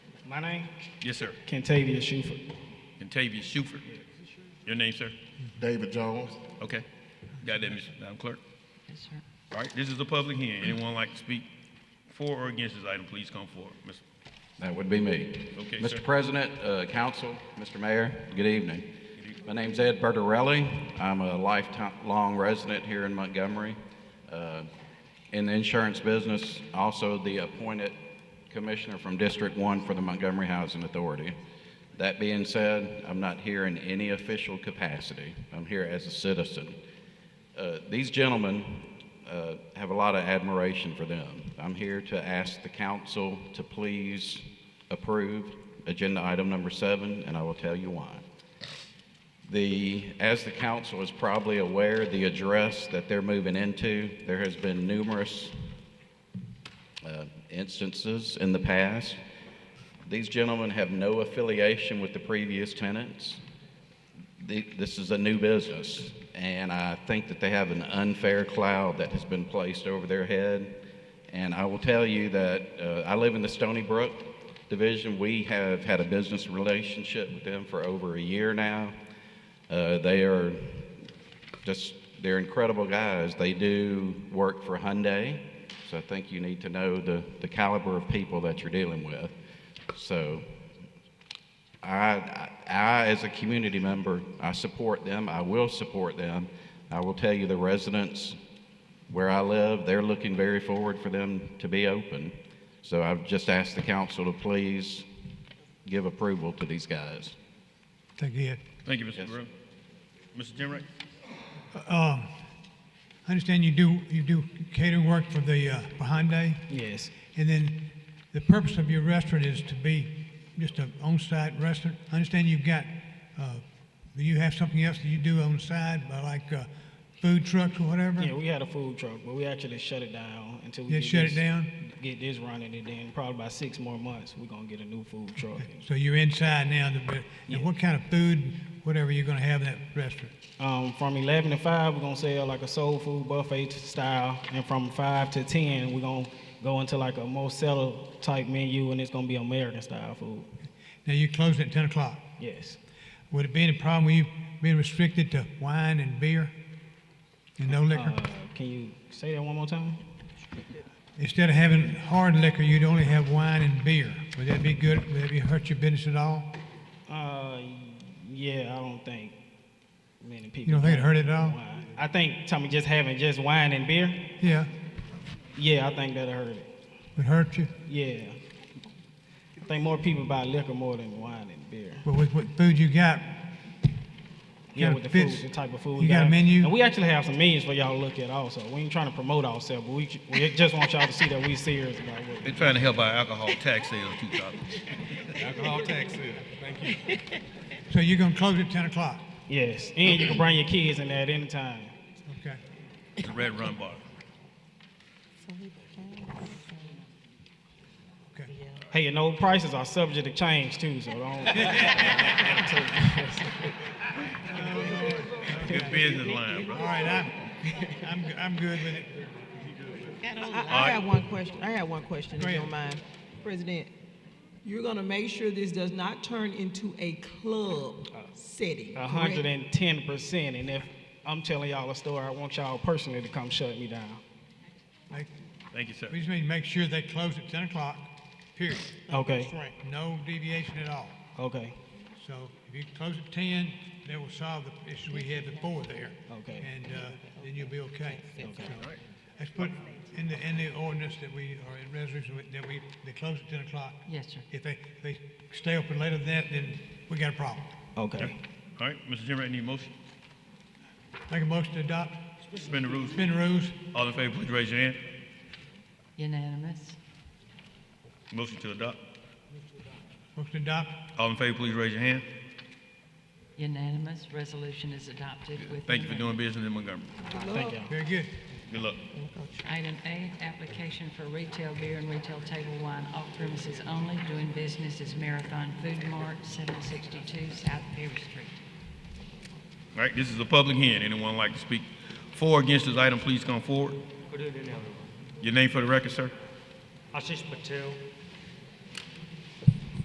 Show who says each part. Speaker 1: My name,
Speaker 2: Yes, sir.
Speaker 1: Kentavia Shuford.
Speaker 2: Contavious Shuford. Your name, sir?
Speaker 3: David Jones.
Speaker 2: Okay. Got that, Ms. Madam Clerk? All right, this is a public hearing. Anyone like to speak for or against this item, please come forward. Ms.
Speaker 4: That would be me.
Speaker 2: Okay, sir.
Speaker 4: Mr. President, uh, Council, Mr. Mayor, good evening. My name's Ed Bertarelli. I'm a lifelong resident here in Montgomery. uh, In the insurance business, also the appointed commissioner from District One for the Montgomery Housing Authority. That being said, I'm not here in any official capacity. I'm here as a citizen. Uh, these gentlemen uh, have a lot of admiration for them. I'm here to ask the council to please approve agenda item number seven, and I will tell you why. The, as the council is probably aware, the address that they're moving into, there has been numerous uh, instances in the past. These gentlemen have no affiliation with the previous tenants the- this is a new business, and I think that they have an unfair cloud that has been placed over their head. And I will tell you that uh, I live in the Stony Brook division. We have had a business relationship with them for over a year now. Uh, they are just they're incredible guys. They do work for Hyundai, so I think you need to know the, the caliber of people that you're dealing with. So I, I, as a community member, I support them. I will support them. I will tell you the residents where I live, they're looking very forward for them to be open. So I've just asked the council to please give approval to these guys.
Speaker 5: Thank you, Ed.
Speaker 2: Thank you, Mr.
Speaker 4: Yes.
Speaker 2: Burrell. Mr. Jenrick?
Speaker 5: Um, I understand you do, you do catering work for the, uh, for Hyundai,
Speaker 1: Yes,
Speaker 5: and then the purpose of your restaurant is to be just an on-site restaurant. I understand you've got, uh, do you have something else that you do on the side, uh, like, uh, food trucks or whatever?
Speaker 1: yeah, we had a food truck, but we actually shut it down until we.
Speaker 5: Yeah,
Speaker 1: get
Speaker 5: shut it
Speaker 1: this-
Speaker 5: down?
Speaker 1: Get this running, and then probably by six more months, we're gonna get a new food truck.
Speaker 5: So you're inside now, the, and what kind of food, whatever you're gonna have in that restaurant?
Speaker 1: Um, from eleven to five, we're gonna sell like a soul food buffet style, and from five to ten, we're gonna go into like a mozzarella type menu, and it's gonna be American style food.
Speaker 5: Now, you're closing at ten o'clock.
Speaker 1: Yes,
Speaker 5: Would it be any problem with you being restricted to wine and beer and no liquor?
Speaker 1: uh, can you say that one more time?
Speaker 5: Instead of having hard liquor, you'd only have wine and beer. Would that be good? Would that be hurt your business at all?
Speaker 1: Uh, yeah, I don't think many people.
Speaker 5: You don't think it hurt it at all?
Speaker 1: wine. I think Tommy just having just wine and beer.
Speaker 5: Yeah,
Speaker 1: Yeah, I think that'll hurt it.
Speaker 5: would hurt you.
Speaker 1: Yeah, I think more people buy liquor more than wine and beer.
Speaker 5: But with what food you got,
Speaker 1: Yeah,
Speaker 5: Kinda
Speaker 1: with the
Speaker 5: fits.
Speaker 1: food, the type of food. we
Speaker 5: You got a menu?
Speaker 1: And we actually have some menus for y'all to look at also. We ain't trying to promote ourselves, but we, ju- we just want y'all to see that we serious about what.
Speaker 2: They're trying to help our alcohol tax sales too, Tom.
Speaker 5: so you're gonna close at ten o'clock.
Speaker 1: Yes, and you can bring your kids in there at any time.
Speaker 5: Okay.
Speaker 2: The Red Run Bar.
Speaker 5: Okay.
Speaker 1: Hey, you know, prices are subject to change too, so don't.
Speaker 2: Good business line, bro.
Speaker 5: All right, I'm, I'm, I'm good with it.
Speaker 6: I
Speaker 2: All
Speaker 6: got one question, I got one question, if
Speaker 5: Go
Speaker 6: you
Speaker 5: ahead.
Speaker 6: don't mind. President, you're gonna make sure this does not turn into a club setting,
Speaker 1: A hundred
Speaker 6: correct?
Speaker 1: and ten percent, and if I'm telling y'all a story, I want y'all personally to come shut me down.
Speaker 5: Like,
Speaker 2: Thank you, sir.
Speaker 5: We just need to make sure they close at ten o'clock. Period.
Speaker 1: Okay,
Speaker 5: Straight. No deviation at all.
Speaker 1: okay,
Speaker 5: So if you close at ten, that will solve the issue we had before there.
Speaker 1: Okay.
Speaker 5: And uh, then you'll be okay. Okay. Let's put in the, in the ordinance that we, or in resolution that we, they close at ten o'clock.
Speaker 7: Yes, sir.
Speaker 5: If they, if they stay open later than that, then we got a problem.
Speaker 1: okay.
Speaker 2: All right, Mr. Jenrick, need a motion?
Speaker 5: Make a motion to adopt,
Speaker 2: Suspend the rules.
Speaker 5: suspend the rules.
Speaker 2: All in favor, please raise your hand.
Speaker 7: Unanimous.
Speaker 2: Motion to adopt.
Speaker 5: Motion to adopt.
Speaker 2: All in favor, please raise your hand.
Speaker 7: Unanimous. Resolution is adopted with.
Speaker 2: Thank you for doing
Speaker 7: unanimous-
Speaker 2: business in Montgomery.
Speaker 1: Thank y'all.
Speaker 5: Very good.
Speaker 2: Good luck.
Speaker 7: Item eight, application for retail beer and retail table wine off premises only. Doing business is Marathon Food Mart, 762 South Perry Street.
Speaker 2: All right, this is a public hearing. Anyone like to speak for or against this item, please come forward.
Speaker 8: Good evening, everyone.
Speaker 2: Your name for the record, sir?
Speaker 8: Ashish Patel,